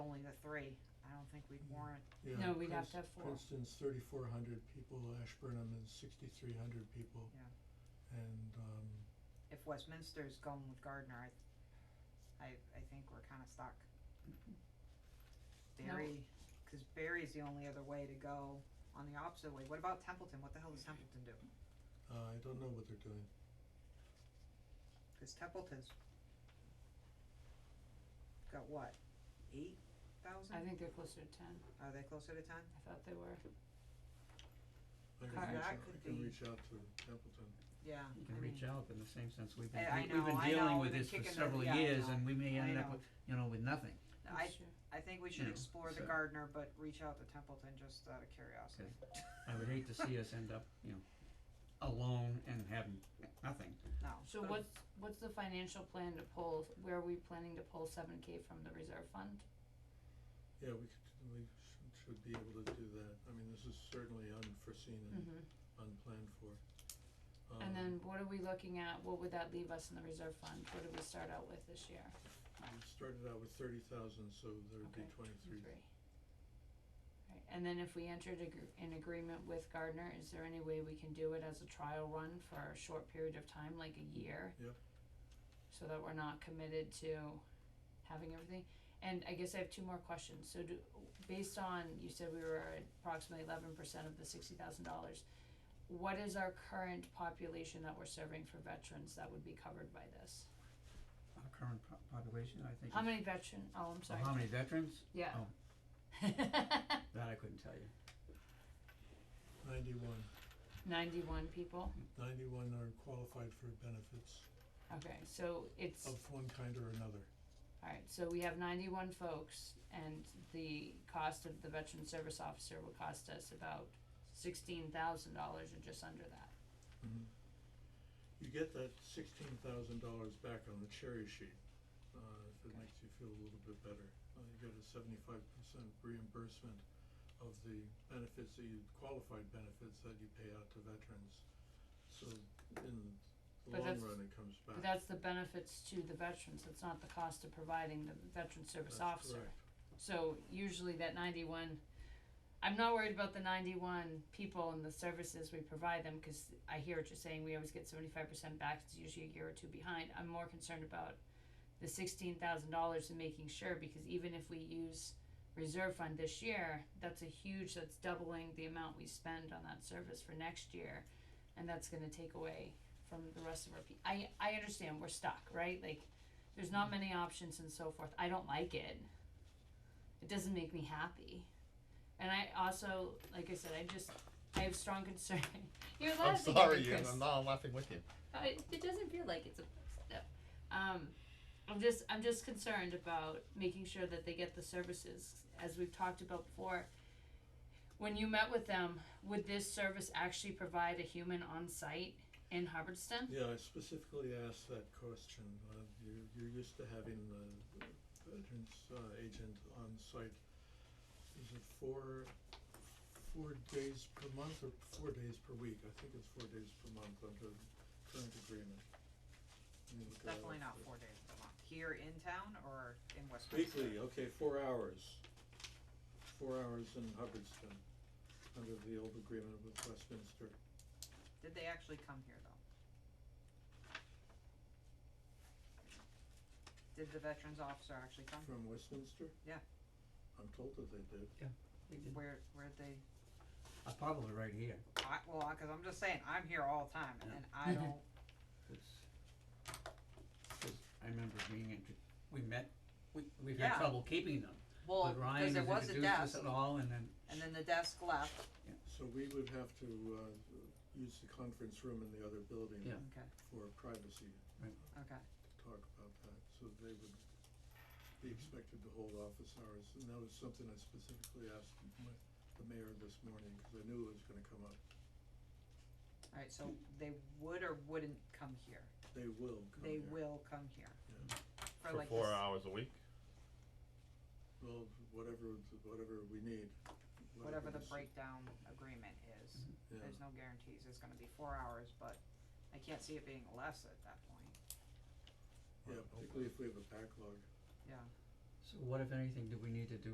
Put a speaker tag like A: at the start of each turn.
A: three, I don't think we'd
B: Mm.
A: warrant,
B: Yeah,
C: No, we'd have
B: Prince-
C: to have four.
B: Princeton's thirty-four hundred people, Ashburnham is sixty-three hundred people.
A: Yeah.
B: And, um,
A: if Westminster's going with Gardner, I, I, I think we're kinda stuck.
C: No.
A: Barry, cause Barry's the only other way to go on the opposite way, what about Templeton, what the hell does Templeton do?
B: uh, I don't know what they're doing.
A: Cause Templeton's got what, eight thousand?
C: I think they're closer to ten,
A: Are they closer to ten?
C: I thought they were.
B: I can
A: Car-
B: reach
A: that
B: out, I
A: could
B: can
A: be-
B: reach out to Templeton.
A: Yeah,
D: You
A: I
D: can reach
A: mean,
D: out in the same sense we've
A: I- I
D: been, we-
A: know,
D: we've been
A: I know,
D: dealing
A: we've
D: with
A: been
D: this for
A: kicking the-
D: several
A: yeah, I
D: years
A: know,
D: and we may
A: I
D: end up
A: know.
D: with, you know, with nothing.
A: I,
C: Sure.
A: I think we should
D: You know,
A: explore the
D: so-
A: Gardner, but reach out to Templeton just out of curiosity.
D: I would hate to see us end up, you know, alone and having nothing.
A: No,
C: So what's, what's the financial plan to pull, where are we planning to pull seven K from the reserve fund?
B: Yeah, we could, we should, should be able to do that. I mean, this is certainly unforeseen and
C: Mm-hmm.
B: unplanned for. Um,
C: And then what are we looking at, what would that leave us in the reserve fund, what did we start out with this year?
B: We started out with thirty thousand, so there would be
C: Okay,
B: twenty-three.
C: Right, and then if we entered agr- an agreement with Gardner, is there any way we can do it as a trial run for a short period of time, like a year?
B: Yep.
C: So that we're not committed to having everything, and I guess I have two more questions, so do, based on, you said we were at approximately eleven percent of the sixty thousand dollars. What is our current population that we're serving for veterans that would be covered by this?
D: Our current po- population, I think.
C: How
D: is-
C: many veteran, oh, I'm
D: So
C: sorry,
D: how many Oh. veterans?
C: yeah.
D: oh. That I couldn't tell you.
B: Ninety-one,
C: Ninety-one people,
B: ninety-one are qualified for benefits
C: okay, so it's,
B: of one kind or another.
C: alright, so we have ninety-one folks, and the cost of the veteran service officer will cost us about sixteen thousand dollars or just under that.
B: Mhm. You get that sixteen thousand dollars back on the cherry sheet, uh, if it
C: Okay.
B: makes you feel a little bit better. Uh, you get a seventy-five percent reimbursement of the benefits that you, qualified benefits that you pay out to veterans. So in the
C: But
B: long
C: that's-
B: run, it comes back.
C: But that's the benefits to the veterans, that's not the cost of providing the veteran service
B: That's
C: officer.
B: correct.
C: So usually that ninety-one, I'm not worried about the ninety-one people and the services we provide them, cause I hear what you're saying, we always get seventy-five percent back, it's usually a year or two behind, I'm more concerned about the sixteen thousand dollars and making sure, because even if we use reserve fund this year, that's a huge, that's doubling the amount we spend on that service for next year, and that's gonna take away from the rest of our pe- I, I understand, we're stuck, right, like, there's not many options and so forth, I don't like it, it doesn't make me happy. And I also, like I said, I just, I have strong concern. You're
E: I'm
C: laughing at
E: sorry,
C: me,
E: Ian.
C: Chris.
E: I'm not I'm laughing with you.
C: I, Uh, it doesn't feel like it's a step. Um, I'm just I'm just concerned about making sure that they get the services as we've talked about before. When you met with them, would this service actually provide a human on site in Hubbardston?
B: Yeah, I specifically asked that question. Uh, you're, you're used to having the veterans uh, agent on site. Is it four, four days per month or four days per week? I think it's four days per month under current agreement. Let me look
A: it's
B: that up
A: definitely not
B: quick.
A: four days a month, here in town or in Westminster?
B: Weekly, okay, four hours. Four hours in Hubbardston, under the old agreement with Westminster.
A: Did they actually come here though? Did the veterans officer actually come?
B: From Westminster?
A: Yeah.
B: I'm told that they did.
A: Where, where'd they,
D: Uh, probably right here.
A: I, well, I- cause I'm just saying, I'm here all the time and
D: Yeah.
A: then I don't,
D: It's- 'cause I remember being in, we met, we, we've
A: Yeah.
D: had trouble keeping them.
A: well,
D: But Ryan
A: cause there
D: has
A: was a
D: introduced us
A: desk
D: at all and then
A: and then the desk left,
B: So we would have to uh use the conference room in the other building
D: Yeah.
A: okay,
B: for privacy
A: okay.
B: to talk about that, so they would be expected to hold office hours, and that was something I specifically asked my the mayor this morning, cause I knew it was gonna come up.
A: Alright, so they would or wouldn't come here?
B: They will come
A: They
B: here.
A: will come here.
B: Yeah.
A: For like this.
E: hours a week.
B: Well, whatever, whatever we need,
A: whatever
B: whatever
A: the
B: is-
A: breakdown agreement is,
B: Yeah.
A: there's no guarantees, it's gonna be four hours, but I can't see it being less at that point,
B: Yeah, particularly if we have a backlog.
A: yeah.
D: So what if anything do we need to do